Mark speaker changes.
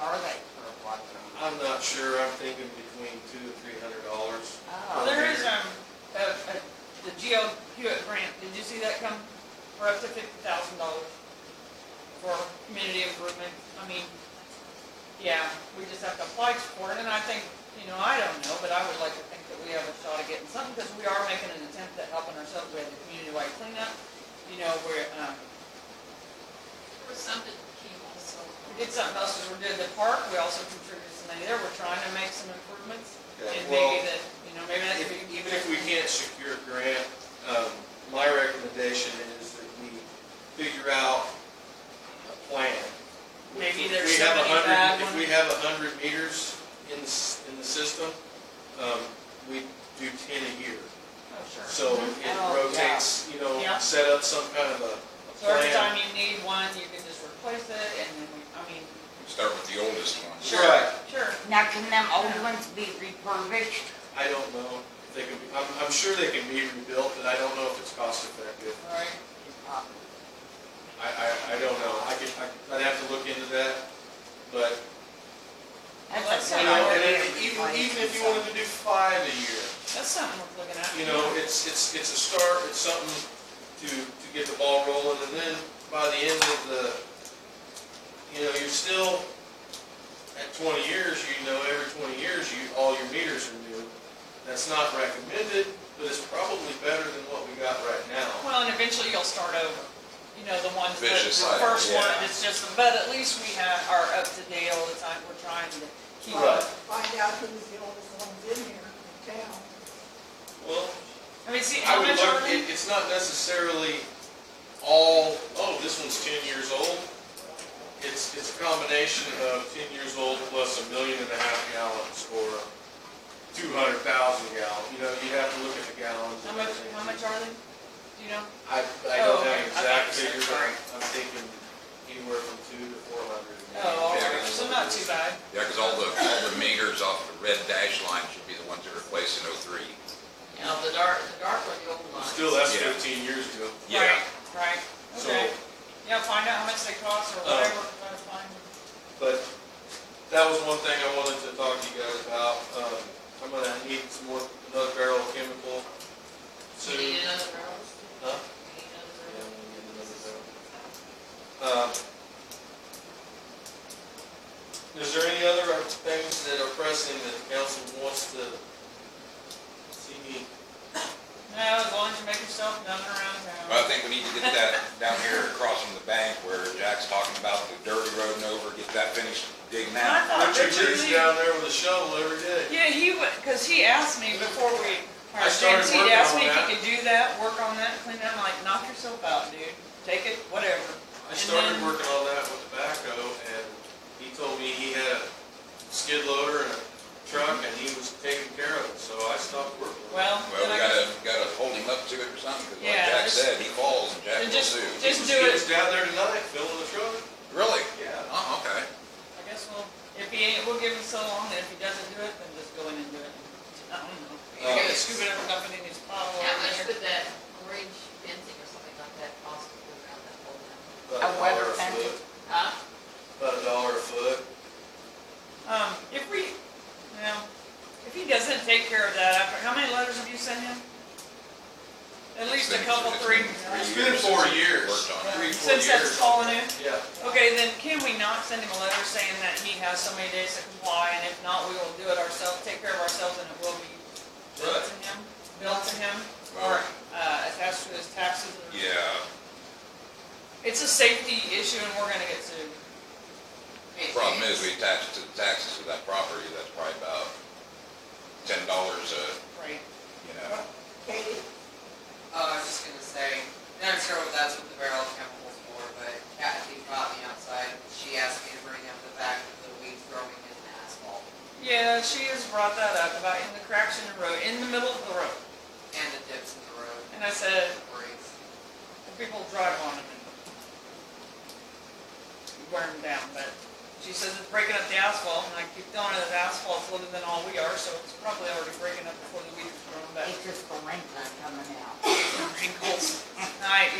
Speaker 1: are they for watching?
Speaker 2: I'm not sure, I'm thinking between two and three hundred dollars.
Speaker 1: Oh.
Speaker 3: Well, there is, um, a, a, the Geo Hewitt grant, did you see that come? For up to fifty thousand dollars for community improvement, I mean, yeah, we just have to apply for it, and I think, you know, I don't know, but I would like to think that we have a shot at getting something, because we are making an attempt at helping ourselves, we had the community-wide cleanup, you know, we're, um,
Speaker 4: There was something came also.
Speaker 3: we did something else, as we did the park, we also contributed some money there, we're trying to make some improvements,
Speaker 2: Okay,
Speaker 3: and
Speaker 2: well,
Speaker 3: maybe that, you know, maybe that
Speaker 2: If-
Speaker 3: could be.
Speaker 2: Even if we can't secure a grant, um, my recommendation is that we figure out a plan.
Speaker 3: Maybe
Speaker 2: If
Speaker 3: there's
Speaker 2: we have a
Speaker 3: somebody
Speaker 2: hundred-
Speaker 3: bad
Speaker 2: If
Speaker 3: one.
Speaker 2: we have a hundred meters in, the s- in the system, um, we do ten a year.
Speaker 3: Oh, sure.
Speaker 2: So it
Speaker 3: Oh, yeah.
Speaker 2: rotates, you know,
Speaker 3: Yeah.
Speaker 2: set up some kind of a- a
Speaker 3: So every
Speaker 2: plan.
Speaker 3: time you need one, you can just replace it, and then, we I mean,
Speaker 5: Start with the oldest one.
Speaker 3: sure,
Speaker 2: Right.
Speaker 3: sure.
Speaker 1: Now, can them old ones be refurbished?
Speaker 2: I don't know if they can, be- I'm, I'm sure they can be rebuilt, but I don't know if it's cost effective.
Speaker 3: All right,
Speaker 2: I, I, I don't know, I could, I- I'd have to look into that, but,
Speaker 1: That's a
Speaker 2: you
Speaker 3: Yeah,
Speaker 2: know, and
Speaker 3: I
Speaker 1: priority
Speaker 2: then
Speaker 1: of
Speaker 2: even, even if you
Speaker 1: replacement.
Speaker 2: wanted to do five a year,
Speaker 3: that's something worth looking at.
Speaker 2: you know, it's, it's, it's a start, it's something to, to get the ball rolling, and then by the end of the, you know, you're still, at twenty years, you know, every twenty years, you, all your meters are new. That's not recommended, but it's probably better than what we got right now.
Speaker 3: Well, and eventually you'll start over, you know, the ones, that-
Speaker 5: Vicious
Speaker 3: the
Speaker 5: cycle,
Speaker 3: first one,
Speaker 5: yeah.
Speaker 3: it's just, but at least we have, are up to date all the time, we're trying to keep
Speaker 2: Right.
Speaker 3: up.
Speaker 6: find out who's the oldest ones in here in town.
Speaker 2: Well,
Speaker 3: I mean, see,
Speaker 2: I
Speaker 3: how
Speaker 2: would
Speaker 3: much
Speaker 2: look,
Speaker 3: are
Speaker 2: it,
Speaker 3: they?
Speaker 2: it's not necessarily all, oh, this one's ten years old. It's, it's a combination of ten years old plus a million and a half gallons or two hundred thousand gallons. You know, you have to look at the gallons.
Speaker 3: How
Speaker 2: and
Speaker 3: much,
Speaker 2: everything.
Speaker 3: how much are they? Do you know?
Speaker 2: I, I
Speaker 3: Oh,
Speaker 2: don't have
Speaker 3: okay.
Speaker 2: an exact
Speaker 3: Okay, so
Speaker 2: figure, but
Speaker 3: sorry.
Speaker 2: I'm thinking anywhere from two to four hundred.
Speaker 3: Oh, all
Speaker 5: Yeah.
Speaker 3: right, so not too bad.
Speaker 5: Yeah, because all the, all the meters off the red dash line should be the ones that are replaced in '03.
Speaker 4: You know, the dark, the dark one, the old ones.
Speaker 2: Still, that's
Speaker 5: Yeah.
Speaker 2: fifteen years ago.
Speaker 3: Right, Right,
Speaker 2: So-
Speaker 3: okay. Yeah, find out how much they cost or
Speaker 2: Uh,
Speaker 3: whatever, try to find.
Speaker 2: But that was one thing I wanted to talk to you guys about. Um, I'm gonna need some more, another barrel of chemical
Speaker 4: You
Speaker 2: soon.
Speaker 4: need another rose?
Speaker 2: Huh?
Speaker 4: You need
Speaker 2: Yeah,
Speaker 4: another
Speaker 2: I'm gonna need another barrel.
Speaker 4: rose?
Speaker 2: Um, Is there any other things that are pressing that the council wants to see me?
Speaker 3: No, as long as you make yourself done around town.
Speaker 5: Well, I think we need to get that down here across from the bank where Jack's talking about the dirty road and over, get that finished digging out.
Speaker 3: I thought
Speaker 2: Uh, Richard
Speaker 3: Richard
Speaker 2: Lee's
Speaker 3: Lee-
Speaker 2: down there with a shovel every day.
Speaker 3: Yeah, he would, because he asked me before we,
Speaker 2: I started
Speaker 3: James, he'd
Speaker 2: working
Speaker 3: asked
Speaker 2: on
Speaker 3: me if
Speaker 2: that.
Speaker 3: he could do that, work on that, clean that, I'm like, knock yourself out, dude. Take it, whatever.
Speaker 2: I started
Speaker 3: then-
Speaker 2: working on that with the backhoe and he told me he had a skid loader and a truck and he was taking care of it, so I stopped working. on it.
Speaker 3: Well,
Speaker 5: Well,
Speaker 3: then
Speaker 5: we
Speaker 3: I
Speaker 5: gotta,
Speaker 3: guess,
Speaker 5: gotta hold him up to it or something, because like
Speaker 3: Yeah,
Speaker 5: Jack
Speaker 3: just-
Speaker 5: said, he falls and Jack
Speaker 3: and
Speaker 5: will
Speaker 3: just-
Speaker 5: sue.
Speaker 3: just-
Speaker 2: He
Speaker 3: do
Speaker 2: was down there tonight filling the truck.
Speaker 5: Really?
Speaker 2: Yeah.
Speaker 5: Oh, okay.
Speaker 3: I guess we'll, if he ain't, we'll give him so long, and if he doesn't do it, then just go in and do it. I don't know. You
Speaker 2: Uh,
Speaker 3: gotta scoop it up and dump it in his pile
Speaker 4: How much
Speaker 3: over there.
Speaker 4: would that orange fencing or something like that cost to put around that whole thing?
Speaker 2: About
Speaker 1: A weather
Speaker 2: dollar
Speaker 1: fence.
Speaker 2: foot.
Speaker 4: Huh?
Speaker 2: About a dollar a foot.
Speaker 3: Um, if we, well, if he doesn't take care of that after, how many letters have you sent him? At least a
Speaker 5: It's been-
Speaker 3: couple,
Speaker 5: it's
Speaker 3: three.
Speaker 5: been three
Speaker 2: It's
Speaker 5: years
Speaker 2: been four
Speaker 5: since we
Speaker 2: years.
Speaker 5: Worked on it.
Speaker 2: three, four
Speaker 3: Since that's
Speaker 2: years.
Speaker 3: falling in?
Speaker 2: Yeah.
Speaker 3: Okay, then can we not send him a letter saying that he has so many days to comply, and if not, we will do it ourselves, take care of ourselves, and it will be billed to him, billed to him, or, uh, attached to his taxes? or-
Speaker 5: Yeah,
Speaker 3: It's a safety issue, and we're gonna get sued.
Speaker 5: problem is, we attach it to the taxes of that property, that's probably about ten dollars a,
Speaker 3: Right.
Speaker 5: you know.
Speaker 6: Katie,
Speaker 7: Oh, I was just gonna say, and I'm sure that's what the barrel of chemicals for, but Kathy brought me outside, she asked me to bring up the fact of the weeds growing in the asphalt
Speaker 3: Yeah, she has brought that up, about in the cracks in the road, in the middle of the road,
Speaker 7: and the dips in the road,
Speaker 3: and I said,
Speaker 7: the breaks.
Speaker 3: people drive on them and wear them down, but she says it's breaking up the asphalt, and I keep telling her that asphalt's older than all we are, so it's probably already breaking up before the weeds are grown back.
Speaker 1: It's just the length not coming out.
Speaker 3: Wrinkles. I,